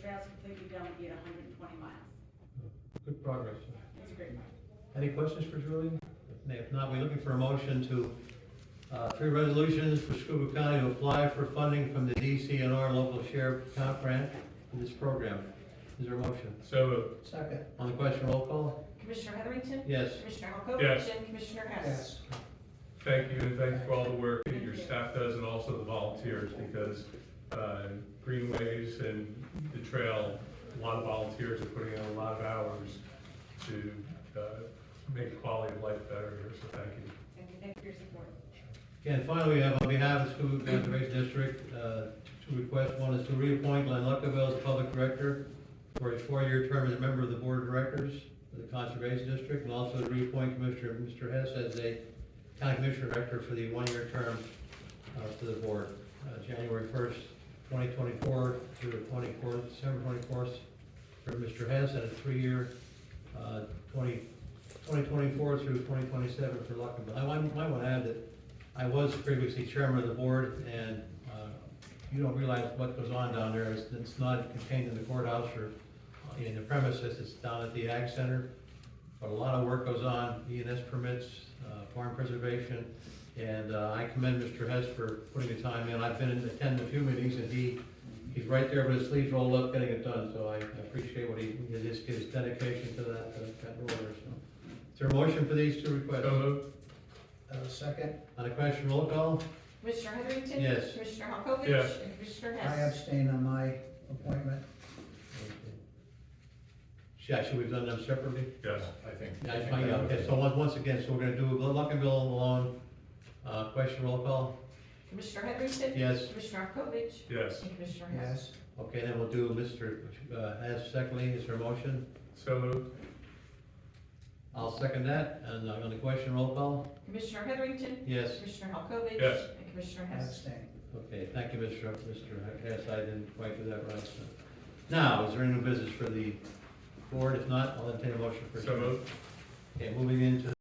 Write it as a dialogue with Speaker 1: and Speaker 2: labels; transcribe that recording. Speaker 1: trail's completely done, we get hundred and twenty miles.
Speaker 2: Good progress.
Speaker 1: That's great.
Speaker 2: Any questions for Julie? If not, we're looking for a motion to, uh, three resolutions for Scuba County to apply for funding from the DCNR local share comp grant for this program. Is there a motion?
Speaker 3: So uh, moved.
Speaker 4: Second.
Speaker 2: On the question, roll call?
Speaker 1: Commissioner Heatherington?
Speaker 2: Yes.
Speaker 1: Commissioner Halkovich?
Speaker 3: Yes.
Speaker 1: And Commissioner Hess?
Speaker 4: Yes.
Speaker 3: Thank you, and thanks for all the work that your staff does and also the volunteers, because uh, Greenways and the trail, a lot of volunteers are putting in a lot of hours to uh, make the quality of life better here, so thank you.
Speaker 1: Thank you, thank you for your support.
Speaker 2: And finally, we have on behalf of the Scuba Conservation District, uh, two requests. One is to reappoint Glenn Luckerville as public director for a four-year term as a member of the board of directors of the Conservation District, and also to reappoint Commissioner, Mr. Hess as a county commissioner director for the one-year term uh, to the board, uh, January first, twenty twenty-four through the twenty-fourth, December twenty-fourth for Mr. Hess, and a three-year, uh, twenty, twenty twenty-four through twenty twenty-seven for Luckerville. I want, I want to add that I was previously chairman of the board, and uh, you don't realize what goes on down there. It's- It's not contained in the courthouse or in the premises, it's down at the Ag Center. But a lot of work goes on, E and S permits, uh, farm preservation, and uh, I commend Mr. Hess for putting the time in. I've been in, attending a few meetings, and he, he's right there with his sleeves rolled up, getting it done, so I appreciate what he, his, his dedication to that, to that role there, so. Is there a motion for these two requests?
Speaker 3: So moved.
Speaker 4: Uh, second.
Speaker 2: On the question, roll call?
Speaker 1: Commissioner Heatherington?
Speaker 2: Yes.
Speaker 1: Commissioner Halkovich?
Speaker 3: Yes.
Speaker 1: And Commissioner
Speaker 4: I
Speaker 1: Hess?
Speaker 4: abstain on my appointment.
Speaker 2: Yeah, should we've done them separately?
Speaker 3: Yes.
Speaker 5: I think.
Speaker 2: Yeah, I uh, find out, okay, so once, once again, so we're gonna do Luckenbill alone, uh, question roll call,
Speaker 1: Commissioner Heatherington?
Speaker 2: yes,
Speaker 1: Commissioner Halkovich?
Speaker 3: Yes.
Speaker 1: And Commissioner Hess?
Speaker 4: Yes.
Speaker 2: okay, then we'll do Mr., uh, as secondly, is there a motion?
Speaker 3: So moved.
Speaker 2: I'll second that, and I'm gonna question roll call,
Speaker 1: Commissioner Heatherington?
Speaker 2: yes,
Speaker 1: Commissioner Halkovich?
Speaker 3: Yes.
Speaker 1: And Commissioner
Speaker 4: I
Speaker 1: Hess?
Speaker 4: abstain.
Speaker 2: okay, thank you, Mr. Mr. Hess, I didn't quite do that right, so. Now, is there any new business for the board, if not, I'll entertain a motion for.
Speaker 3: So moved.
Speaker 2: Okay, moving into